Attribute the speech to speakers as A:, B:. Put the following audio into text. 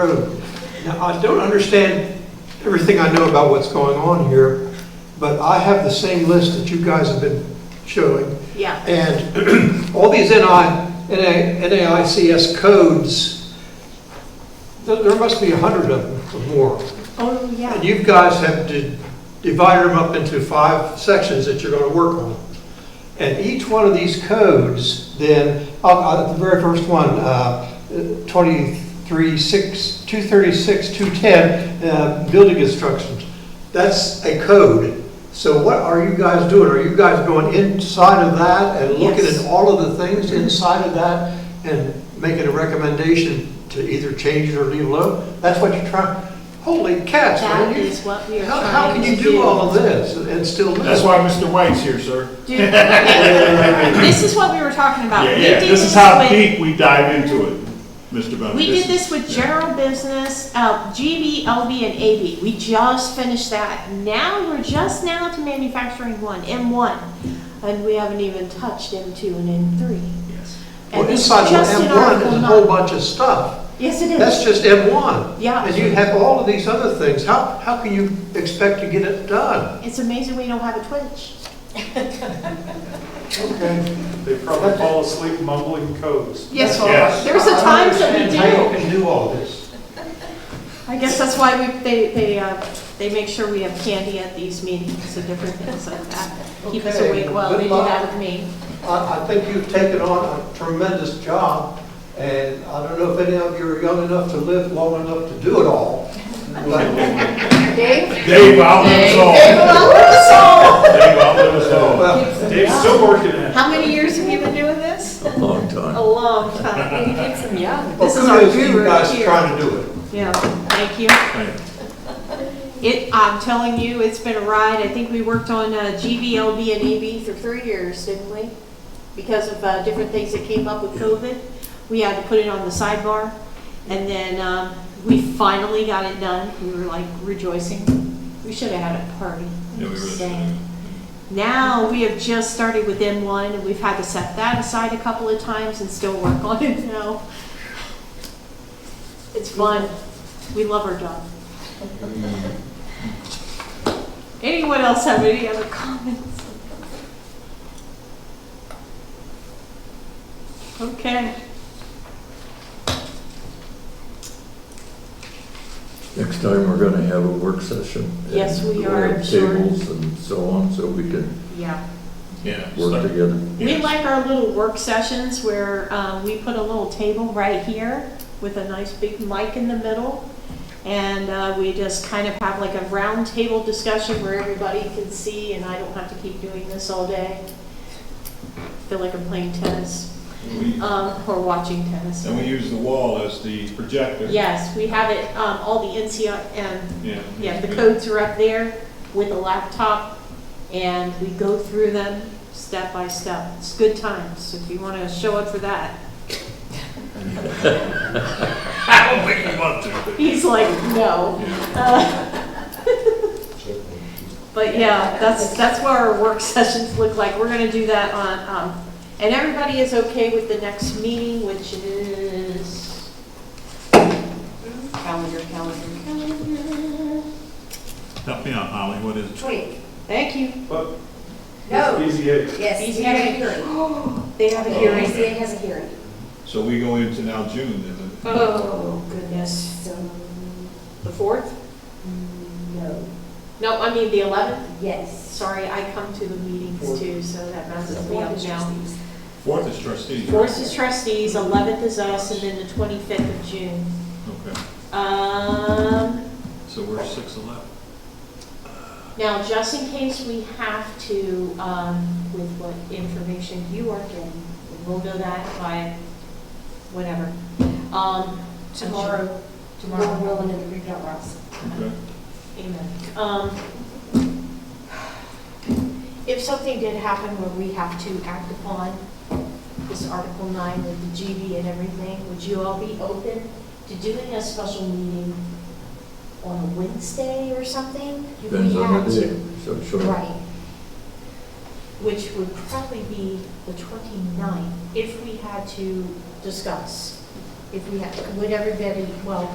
A: Road. Now, I don't understand everything I know about what's going on here, but I have the same list that you guys have been showing.
B: Yeah,
A: And all these NI, NA NAICS codes, there there must be a hundred of them or more.
B: oh,
A: And
B: yeah,
A: you guys have to divide them up into five sections that you're going to work on. And each one of these codes, then, uh, uh, the very first one, uh, 23, 6, 236, 210, uh, building instructions, that's a code. So what are you guys doing? Are you guys going inside of that and looking
B: Yes.
A: at all of the things inside of that and making a recommendation to either change it or leave it alone? That's what you're trying, holy cats, man.
B: that
A: you-
B: is what we are
A: How, how can
B: trying to
A: you
B: do.
A: do all of this and still live?
C: That's why Mr. White's here, sir.
B: Dude, okay, This is what we were talking about.
C: Yeah,
B: We
C: yeah,
B: did
C: this is how
B: with-
C: deep we dive into it, Mr. Bowman.
B: We did this with general business, uh, GB, LB, and AB. We just finished that. Now, we're just now to manufacturing one, M1. And we haven't even touched M2 and M3.
A: Well,
B: And it's
A: inside of
B: just
A: M1
B: in
A: is
B: Article
A: a whole
B: nine.
A: bunch of stuff.
B: Yes, it
A: That's
B: is.
A: just M1.
B: Yeah.
A: And you have all of these other things. How, how can you expect to get it done?
B: It's amazing we don't have a Twitch.
A: Okay.
D: They probably fall asleep mumbling codes.
B: Yes,
C: all right. Yes.
B: there's a times that we do.
A: you can do all this.
B: I guess that's why we, they, they, uh, they make sure we have candy at these meetings and different things like that. Keep us
A: Okay,
B: awake while they
A: good
B: do
A: luck.
B: that with me.
A: I, I think you've taken on a tremendous job, and I don't know if any of you are young enough to live long enough to do it all. But,
E: Dave?
C: Dave outlives us all.
E: Dave,
C: Dave outlives us all.
A: well,
D: Dave's still working it.
B: How many years have you been doing this?
F: a long time.
E: A long time. And he keeps them young.
B: This is our
A: kudos to you
B: guru
A: guys
B: here.
A: trying to do it.
B: Yeah, thank you.
C: Thank
B: It, I'm telling you, it's been a ride. I think we worked on uh, GVLB and AB for three years, didn't we? Because of uh, different things that came up with COVID. We had to put it on the sidebar. And then um, we finally got it done. We were like rejoicing. We should have had a party.
F: Yeah, we really should
B: Dang.
F: have.
B: Now, we have just started with M1, and we've had to set that aside a couple of times and still work on it now. It's fun. We love our job. Anyone else have any other comments? Okay.
F: Next time, we're gonna have a work session. and
B: Yes, we
F: we'll
B: are,
F: have
B: I'm sure.
F: Tables and so on, so we can
B: Yeah.
C: Yeah.
F: work
C: so-
F: together.
B: We
C: yes.
B: like our little work sessions where um, we put a little table right here with a nice big mic in the middle. And uh, we just kind of have like a round table discussion where everybody can see and I don't have to keep doing this all day. Feel like I'm playing tennis
C: We-
B: um, or watching tennis.
C: And we use the wall as the projector.
B: Yes, we have it, um, all the NCI and
C: Yeah.
B: yeah, the codes are up there with a laptop, and we go through them step by step. It's good times, if you want to show up for that.
C: I don't think we want to.
B: He's like, no.
C: Yeah.
B: But yeah, that's, that's what our work sessions look like. We're going to do that on, um, and everybody is okay with the next meeting, which is,
E: Calendar, calendar, calendar.
C: Help me out, Holly, what is it?
E: Tweak.
B: thank you.
D: But
E: No.
D: it's BZA.
E: Yes.
B: He's
E: you have
B: having-
E: a hearing.
B: They have a
C: Oh.
B: hearing.
E: BZA has a hearing.
C: So we go into now June, then, the-
B: Oh, goodness.
E: So,
B: The fourth?
E: no.
B: No, I mean the 11th.
E: Yes.
B: Sorry, I come to the meetings too, so that messes me up now.
C: fourth is trustees. right?
B: Fourth is trustees, eleventh is us, and then the twenty-fifth of June.
C: Okay,
B: Um,
C: so we're six eleven.
B: now, just in case we have to, um, with what information you are getting, we'll know that by whatever. Um,
E: Tomorrow. Tomorrow, we're rolling in the Greek Out Ross.
C: Okay.
B: Amen. Um, If something did happen where we have to act upon this Article 9 with the GB and everything, would you all be open to doing a special meeting on a Wednesday or something? If we
F: Depends on
B: had
F: the
B: to.
F: day, so sure.
B: Right. Which would probably be the 29th, if we had to discuss, if we had, would everybody, well,